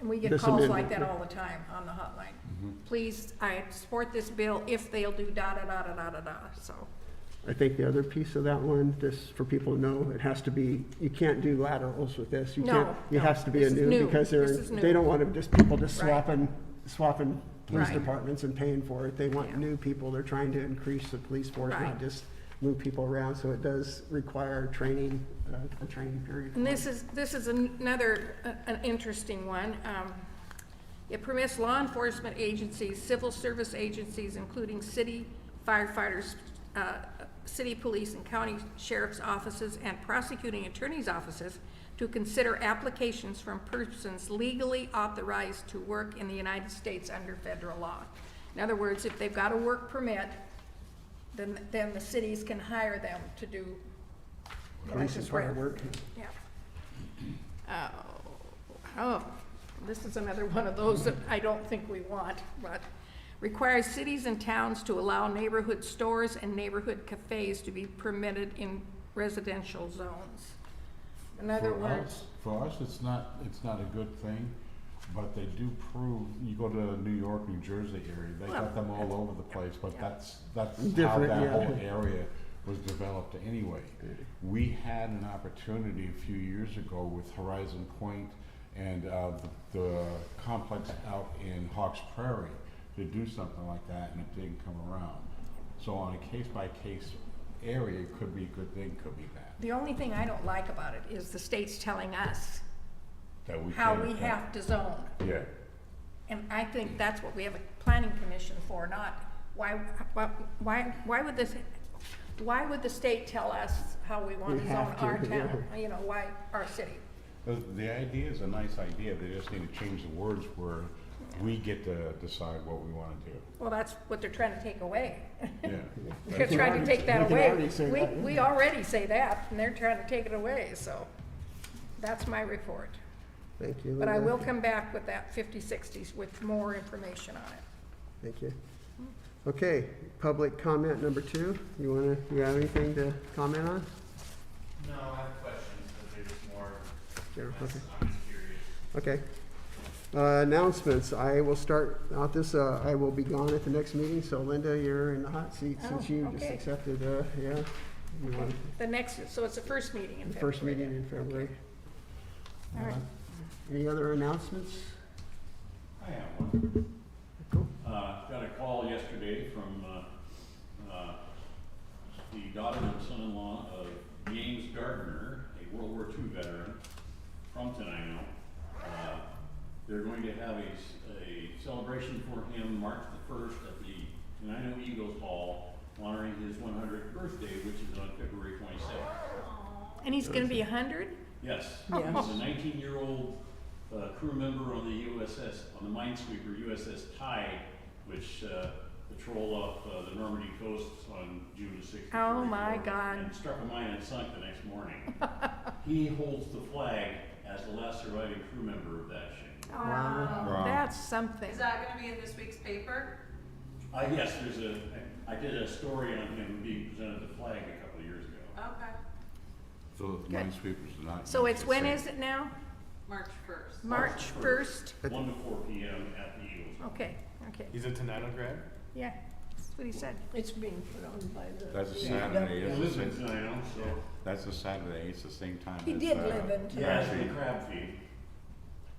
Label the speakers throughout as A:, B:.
A: And we get
B: This
A: calls
B: amendment.
A: like that all the time on the hotline. Please, I support this bill if they'll do da da da da da da da, so.
B: I think the other piece of that one, just for people to know, it has to be, you can't do laterals with this. You
A: No,
B: can't. It
A: no,
B: has to be a
A: this is
B: new,
A: new.
B: because they're,
A: This is new.
B: they don't want to just, people just
A: Right.
B: swapping, swapping police
A: Right.
B: departments and paying for it. They want
A: Yeah.
B: new people. They're trying to increase the police force,
A: Right.
B: not just move people around. So it does require training, uh, a training period.
A: And this is, this is an- another, uh, an interesting one. Um, It permits law enforcement agencies, civil service agencies, including city firefighters, uh, city police and county sheriff's offices, and prosecuting attorney's offices to consider applications from persons legally authorized to work in the United States under federal law. In other words, if they've got a work permit, then, then the cities can hire them to do
B: Police and
A: this work.
B: fire work.
A: Yeah. Oh, oh, this is another one of those that I don't think we want, but requires cities and towns to allow neighborhood stores and neighborhood cafes to be permitted in residential zones. In other
C: For
A: words,
C: us- For us, it's not, it's not a good thing, but they do prove, you go to New York, New Jersey area, they got them all over the place, but that's, that's how
B: Different,
C: that
B: yeah.
C: whole area was developed anyway. We had an opportunity a few years ago with Horizon Point and, uh, the, the complex out in Hawks Prairie to do something like that, and it didn't come around. So on a case-by-case area, it could be a good thing, could be bad,
A: the only thing I don't like about it is the state's telling us
C: that we
A: how
C: can't-
A: we have to zone.
C: Yeah.
A: And I think that's what we have a planning commission for, not, why, why- why, why would this, why would the state tell us how we want
B: We
A: to zone
B: have to,
A: our town? You know, why our city?
C: The, the idea is a nice idea, they just need to change the words where we get to decide what we wanna do.
A: Well, that's what they're trying to take away.
C: Yeah.
A: They're trying to take
B: We
A: that
B: can
A: away.
B: already say
A: We,
B: that, yeah.
A: we already say that, and they're trying to take it away, so that's my report.
B: Thank you.
A: But I
B: Linda.
A: will come back with that fifty sixties with more information on it.
B: Thank you. Okay, public comment number two. You wanna, you have anything to comment on?
D: No, I have questions, but they're just more,
B: Jennifer?
D: I'm
B: Okay.
D: just curious.
B: Okay. Uh, Announcements, I will start out this, uh, I will be gone at the next meeting, so Linda, you're in the hot seat since
A: Oh,
B: you just
A: okay.
B: accepted, uh, yeah. you want
A: The next, so it's the first meeting in
B: The
A: February.
B: first meeting in February.
A: All right.
B: Any other announcements?
E: I have one.
B: Cool.
E: Uh, got a call yesterday from, uh, uh, the daughter and son-in-law of James Gardner, a World War II veteran, from Tenino. Uh, They're going to have a, s- a celebration for him March the first at the Tenino Eagles Hall, honoring his one hundredth birthday, which is on February twenty-sixth.
A: And he's gonna be a hundred?
E: Yes.
A: Yes.
E: He's a nineteen-year-old, uh, crew member on the USS, on the minesweeper USS Tide, which, uh, patrolled off, uh, the Normandy coast on June sixth.
A: Oh, my God.
E: And struck a mine and sunk the next morning. He holds the flag as the last surviving crew member of that ship.
B: Wow.
C: Wow.
A: That's something.
F: Is that gonna be in this week's paper?
E: Uh, yes, there's a, I I did a story on him being presented the flag a couple of years ago.
F: Okay,
C: So
A: Good.
C: minesweepers are not.
A: So it's, when is it now?
F: March first.
A: March first?
E: One to four P M at the Eagles.
A: Okay, okay,
D: He's a Tenino grad?
A: yeah, that's what he said.
G: It's being put on by the.
C: That's a Saturday,
E: He
C: it's
E: lives
C: the
E: in
C: same,
E: Tenino, so,
C: that's a Saturday, it's the same time.
G: He
C: as,
G: did
C: uh,
G: live in
E: yeah, it's the
C: Crabtree.
E: crab feed,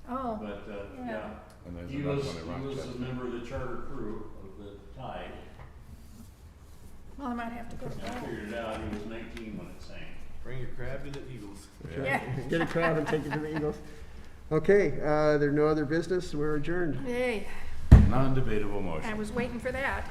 A: Oh,
E: but, uh,
A: Yeah.
E: yeah.
C: And there's
E: He
C: another
E: was,
C: one in
E: he was
C: Rochester.
E: a member of the charter crew of the tide,
A: well, I might have to go to
E: and I
A: that.
E: figured it out, he was nineteen when it sank.
D: Bring your crab to the Eagles.
C: Yeah.
A: Yeah,
B: Get a crowd and take it to the Eagles. Okay, uh, there are no other business, we're adjourned.
A: yay,
C: Non-debatable motion.
A: I was waiting for that.